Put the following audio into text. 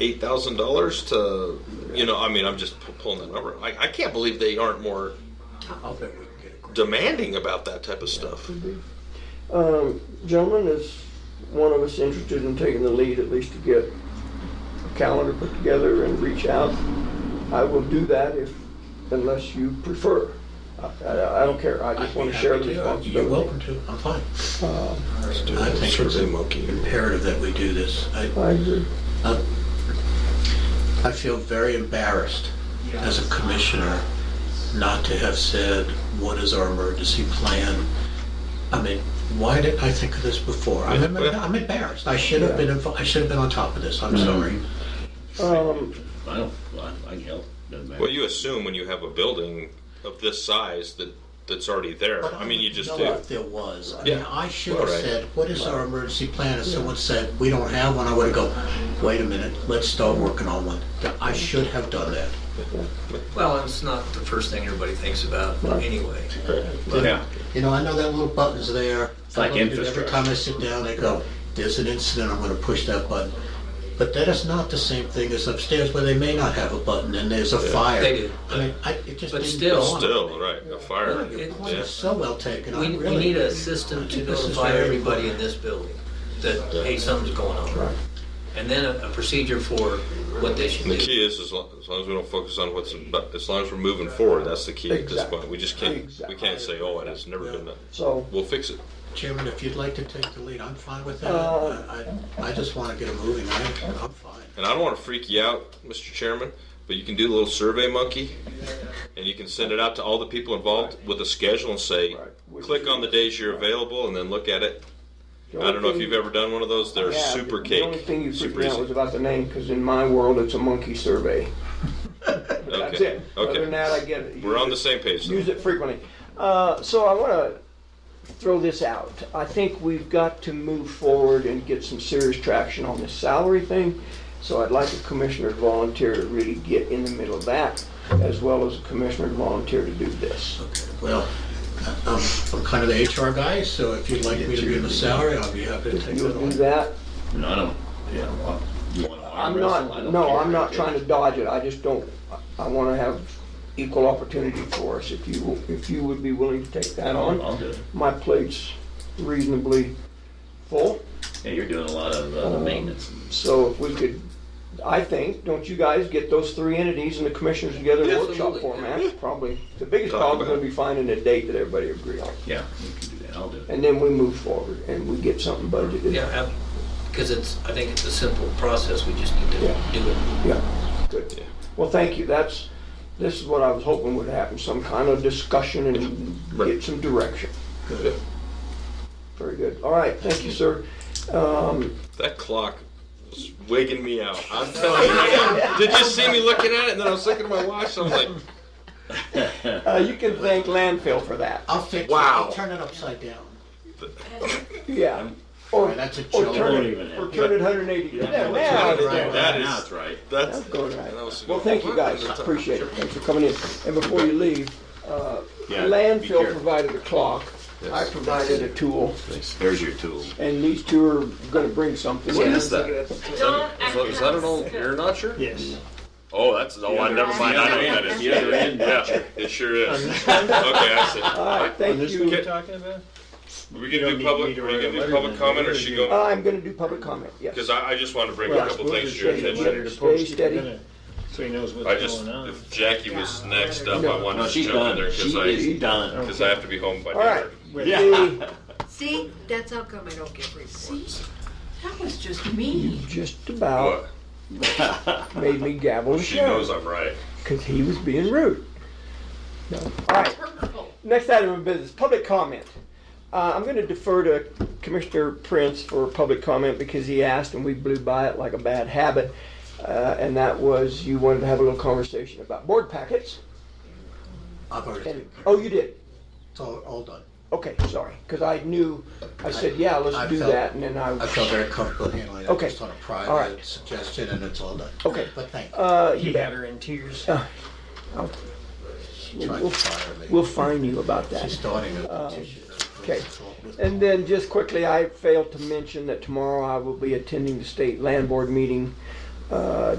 eight thousand dollars to, you know, I mean, I'm just pu- pulling that number. I, I can't believe they aren't more I'll bet we can get it. demanding about that type of stuff. Um, gentlemen, is one of us interested in taking the lead at least to get a calendar put together and reach out? I will do that if, unless you prefer. I, I, I don't care. I just want to uh, share the You're responsibility. welcome to, I'm fine. Uh, I think it's Survey monkey. imperative that we do this. I, Uh, I agree. I- I feel very embarrassed as a commissioner not to have said, what is our emergency plan? I mean, why didn't I think of this before? I'm embar- I'm embarrassed. I should have been, info- I should have been on top of this. I'm Mm-hmm. sorry. Um, I don't, I I can help, doesn't matter. Well, you assume when you have a building of this size that that's already there. I mean, you just know do. if There was. I mean, Yeah. I should All have right. said, what is our emergency plan? If someone said, we don't have one, I would have go, wait a minute, let's start working on one. I should have done that. Well, and it's not the first thing everybody thinks about anyway. Yeah, You know, I know that little button's there. It's like Every infrastructure. time I sit down, I go, there's an incident, I'm gonna push that button. But that is not the same thing as upstairs where they may not have a button and there's a fire. They do. I mean, I, it just. But didn't still- dawn on me. Still, right, a fire. Your It- point yeah. is so well taken, I We, really. we need a system to This is notify very everybody important. in this building that, hey, something's going on. And then a, a procedure for what they should And the do. key is, as long, as long as we don't focus on what's, about, as long as we're moving forward, that's the key at this Exactly. point. We just can't, we can't say, oh, it has never been done. so, We'll fix it. Chairman, if you'd like to take the lead, I'm fine with that. Uh, I, I- I just want to get it moving. I- I'm fine. And I don't want to freak you out, Mr. Chairman, but you can do a little survey monkey, and you can send it out to all the people involved with a schedule and say, Right. click on the days you're available, and then look at it. I don't know if you've ever done one of those. They're Yeah, super The only cake, thing you freaked super me out was easy. about the name, because in my world, it's a monkey survey. That's Okay, it. Other than okay. that, I get it. We're on the same page. though. use it frequently. Uh, so I want to throw this out. I think we've got to move forward and get some serious traction on this salary thing. So I'd like a commissioner to volunteer to really get in the middle of that, as well as a commissioner to volunteer to do this. Well, I'm, I'm kind of the HR guy, so if you'd like me to give a salary, I'll be happy to take You'll that do on. that. no, I don't, yeah, well, you want to arm I'm wrestle? I not. don't No, care. I'm not trying to dodge it. I just don't. I- I want to have equal opportunity for us. If you if you would be willing to take that on, I'll do it. my plate's reasonably full. Yeah, you're doing a lot of uh, Um, maintenance. So if we could, I think, don't you guys get those three entities and the commissioners together in a workshop Absolutely. format? Probably, the biggest Talk problem's about gonna be finding a date that everybody agree on. Yeah, you can do that. I'll do it. And then we move forward and we get something budgeted. Yeah, because it's, I think it's a simple process, we just need to Yeah. do it. Yeah, good. Well, thank you, that's, this is what I was hoping would happen, some kind of discussion and get Right. some direction. Yeah. Very good, all right, thank you, sir. Um, That clock was wigging me out. I'm telling you. I got- Did you see me looking at it? And then I was looking at my watch. And I'm like, uh, you can thank landfill for that, I'll fix it. Wow. I'll turn it upside down. yeah. Or, Right, that's a or joke. Oh, turn Won't even it, or happen. turn it hundred and eighty. Yeah, Yeah, but now turn it it's right. down. That Now is- it's right. that's Going right. And I was- Well, thank you guys, appreciate it, thanks for coming in. And before you leave, uh, Yeah, be landfill careful. provided a clock, I provided a tool, There's your tool. and these two are gonna bring something. What in. is that? Don't act Is that an old ear notcher? Yes. Oh, that's oh, I never mind. I know what that is. The other end, Yeah, it sure is. Okay, I All right, thank you. talking about? see. We gonna do public. Are we gonna do public comment, or she go? Uh, I'm gonna do public comment, yes. Because I, I just wanted to bring a couple things to your attention. Stay steady. So he knows I what's just, going on. if Jackie was next up, I wanted No, to she's jump in done. there She because is I, done. because I have to be home by All right. dinner. The- See, that's how come I don't get reports. That was just me. You just about What? made me gavel the She knows show, I'm right. because he was being rude. No. All right, next item of business, public comment. Uh, I'm gonna defer to Commissioner Prince for public comment because he asked and we blew by it like a bad habit. Uh, and that was, you wanted to have a little conversation about board packets. I've already, And, taken- oh, you did? it's all, all done. Okay, sorry, because I knew, I said, yeah, I- I let's do felt- that, and then I. I felt very comfortable handling it, Okay. just on a All right. private suggestion, and it's all done. Okay. But thank you, Uh, He you had bet. Uh, her in tears. she tried to fire me. We'll fine you about She's that. starting a petition. okay. And then just quickly, I failed to mention that tomorrow I will be attending the state land board meeting uh,